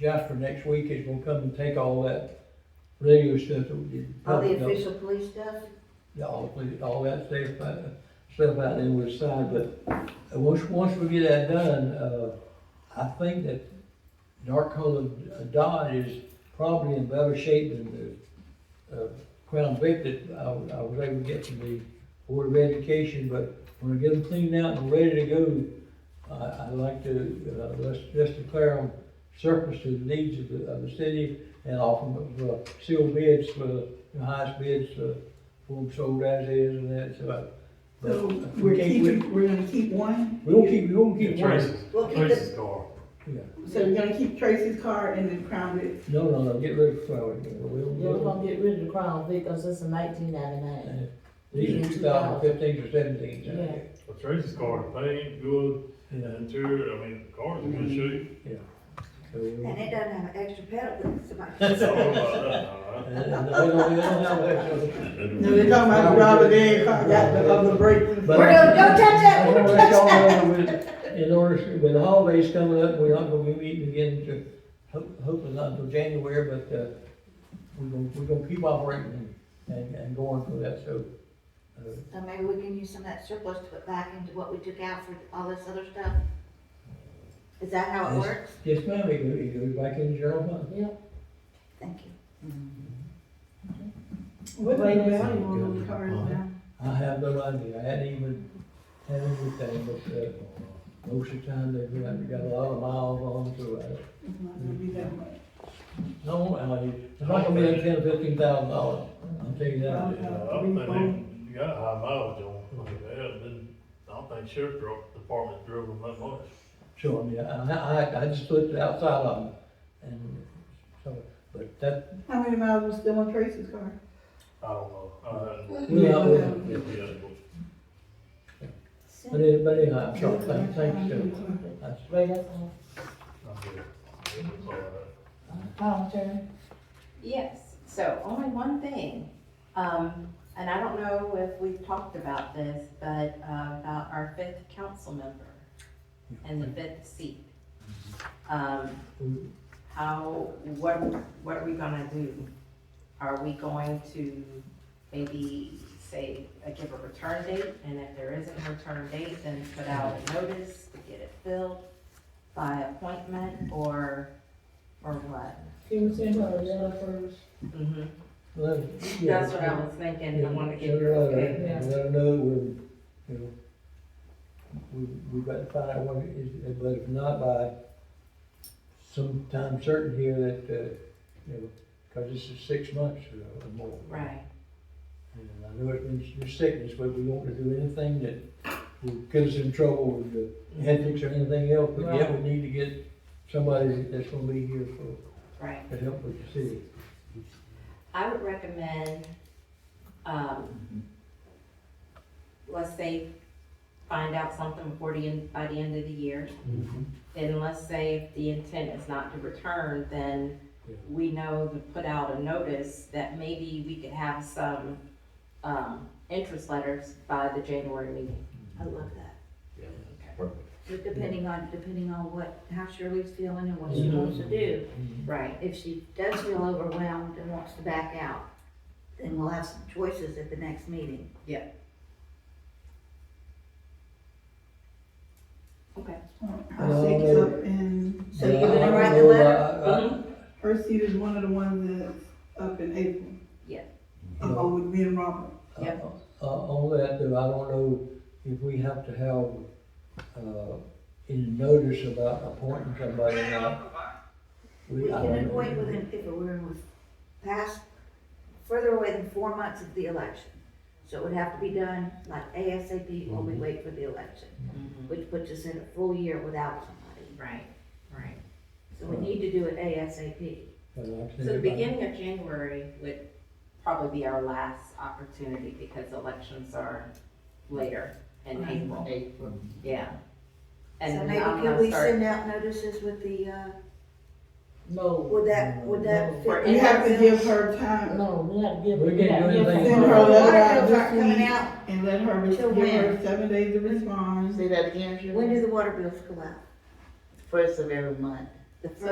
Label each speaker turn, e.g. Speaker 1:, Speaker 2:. Speaker 1: Jasper next week is gonna come and take all that radio stuff that we did.
Speaker 2: All the official police stuff?
Speaker 1: Yeah, All, the- all that stuff, uh, stuff out there was signed, but uh, once, once we get that done, uh, I think that dark colored Dodge is probably in better shape than the, uh, Crown Vic that I, was- I was able to get from the Board of Education, but when I get them cleaned out and ready to go, I, I'd like to, uh, let's, let's declare them surplus to the needs of the, of the city and offer them, uh, sealed bids for the highest bids, uh, for them sold as is and that, so. but-
Speaker 3: So
Speaker 1: but
Speaker 3: we're
Speaker 1: we can't- we-
Speaker 3: keeping, we're gonna keep one,
Speaker 1: We don't keep, we don't keep one.
Speaker 4: Traces,
Speaker 2: Well, keep
Speaker 4: Traces car.
Speaker 1: Yeah.
Speaker 3: so we're gonna keep Tracy's car and then Crown Vic.
Speaker 1: No, no, no, get rid of flowers, we don't, we
Speaker 5: You're
Speaker 1: don't.
Speaker 5: gonna get rid of the Crown Vic, cause it's a nineteen ninety-nine.
Speaker 1: These are two thousand fifteen or seventeen,
Speaker 5: Yeah.
Speaker 4: Well, Traces car, they ain't good,
Speaker 1: yeah,
Speaker 4: interior, I mean, the car's in good shape.
Speaker 1: so we don't.
Speaker 2: And it doesn't have an extra pedal, but it's about.
Speaker 4: I don't know about
Speaker 1: And- and they don't- they don't have
Speaker 4: uh,
Speaker 1: that, so-
Speaker 4: Mm-hmm.
Speaker 3: No, they're talking about the Robert Dan car, got the, of the brake.
Speaker 1: But-
Speaker 2: We're gonna, don't touch that,
Speaker 1: I
Speaker 2: don't
Speaker 1: don't want
Speaker 2: touch
Speaker 1: y'all
Speaker 2: that.
Speaker 1: to know with- In order, to- with the holidays coming up, we're not gonna be meeting again to, ho- hopefully not until January, but, uh, we're gonna, we're gonna keep operating and, and going for that, so. uh,
Speaker 2: So maybe we can use some of that surplus to put back into what we took out for all this other stuff? Is that how it
Speaker 1: Yes.
Speaker 2: works?
Speaker 1: Yes, ma'am, it goes, it goes back in the general fund.
Speaker 5: Yep.
Speaker 2: Thank you.
Speaker 3: What the value on those cars now?
Speaker 1: I have no idea, I hadn't even had anything, but, uh, most of the time, they've got, they got a lot of miles on, them, so, uh,
Speaker 3: It's not gonna be that much.
Speaker 1: no, I, it's not gonna be like ten, fifteen thousand dollars, I'll tell you that.
Speaker 4: that. Yeah, I think you got a high mileage on them like that, and then I don't think sheriff dro- department drove them that much.
Speaker 1: Sure, yeah, and I, I, I just looked outside of them, and so, but that,
Speaker 3: How many miles was still on Tracy's car?
Speaker 4: I don't know, I hadn't looked
Speaker 1: well, I
Speaker 3: Yeah.
Speaker 1: wasn't-
Speaker 4: at it yet.
Speaker 1: but any- but anyhow, I'm sorry, thank, thank you, sir. That's-
Speaker 5: Right, that's all.
Speaker 4: I'm good. It was all right.
Speaker 5: Madam Chair.
Speaker 6: Yes, so only one thing, um, and I don't know if we've talked about this, but, uh, about our fifth council member and the fifth seat. Um, how, what, what are we gonna do? Are we going to maybe say, uh, give a return date, and if there isn't a return date, then put out a notice to get it filled by appointment, or, or what?
Speaker 5: She was in her letter first.
Speaker 6: Mm-hmm.
Speaker 1: well, yeah.
Speaker 6: That's what I was thinking, I wanted to
Speaker 1: Yeah,
Speaker 6: get your
Speaker 1: send her
Speaker 6: okay.
Speaker 1: letter, and Let her know we're, you know, we, we got to find out what it is, but if not by some time certain here that, uh, you know, cause this is six months or- or more.
Speaker 6: Right,
Speaker 1: And I know it means your sickness, but we don't want to do anything that will get us in trouble with
Speaker 2: Mm-hmm.
Speaker 1: the ethics or anything else, but yet we need to get somebody that's gonna be here for,
Speaker 6: right.
Speaker 1: to help with the city.
Speaker 6: I would recommend, um, let's say, find out something before the end, by the end of the year. Then let's say if the intent is not to return, then
Speaker 1: Yeah.
Speaker 6: we know to put out a notice that maybe we could have some, um, interest letters by the January meeting.
Speaker 2: I love that.
Speaker 7: Yeah.
Speaker 2: But depending on, depending on what, how Shirley's feeling and what she wants to do.
Speaker 6: Right.
Speaker 2: If she does feel overwhelmed and wants to back out, then we'll have some choices at the next meeting.
Speaker 6: Okay.
Speaker 3: I'll shake it up and
Speaker 2: So you're
Speaker 1: I- I
Speaker 2: gonna
Speaker 1: don't
Speaker 2: write the
Speaker 1: know,
Speaker 2: letter?
Speaker 1: I- I-
Speaker 3: her seat is one of the ones that's up in April.
Speaker 6: Yeah.
Speaker 3: Oh, with me and Robert.
Speaker 6: Yeah.
Speaker 1: Uh, on that, though, I don't know if we have to have, uh, any notice about appointing somebody now.
Speaker 2: We
Speaker 1: I
Speaker 2: can
Speaker 1: don't know.
Speaker 2: avoid within, if it were with past, further away than four months of the election. So it would have to be done like ASAP while we wait for the election,
Speaker 1: Mm-hmm.
Speaker 2: which puts us in a full year without somebody.
Speaker 6: Right, right.
Speaker 2: So we need to do it ASAP.
Speaker 1: But like I
Speaker 6: So
Speaker 1: said,
Speaker 6: the
Speaker 1: if I-
Speaker 6: beginning of January would probably be our last opportunity because elections are later in April,
Speaker 5: April.
Speaker 6: yeah.
Speaker 2: So
Speaker 6: And
Speaker 2: maybe
Speaker 6: I'm
Speaker 2: could
Speaker 6: gonna
Speaker 2: we
Speaker 6: start,
Speaker 2: send out notices with the, uh,
Speaker 5: No,
Speaker 2: would that, would that?
Speaker 6: For
Speaker 2: fit?
Speaker 3: You have to give her time
Speaker 5: no, we have to give.
Speaker 1: We
Speaker 5: we
Speaker 1: can't
Speaker 5: have to
Speaker 1: do
Speaker 5: give
Speaker 1: anything.
Speaker 5: her-
Speaker 3: Send her a
Speaker 2: Well,
Speaker 3: letter
Speaker 2: water
Speaker 3: out
Speaker 2: bills aren't coming
Speaker 3: this week
Speaker 2: out.
Speaker 3: and let her, re-
Speaker 2: Till
Speaker 3: give her
Speaker 2: when?
Speaker 3: seven days to respond.
Speaker 8: Say that again, Shirley?
Speaker 2: When do the water bills go out?
Speaker 8: First of every month.
Speaker 2: The
Speaker 6: So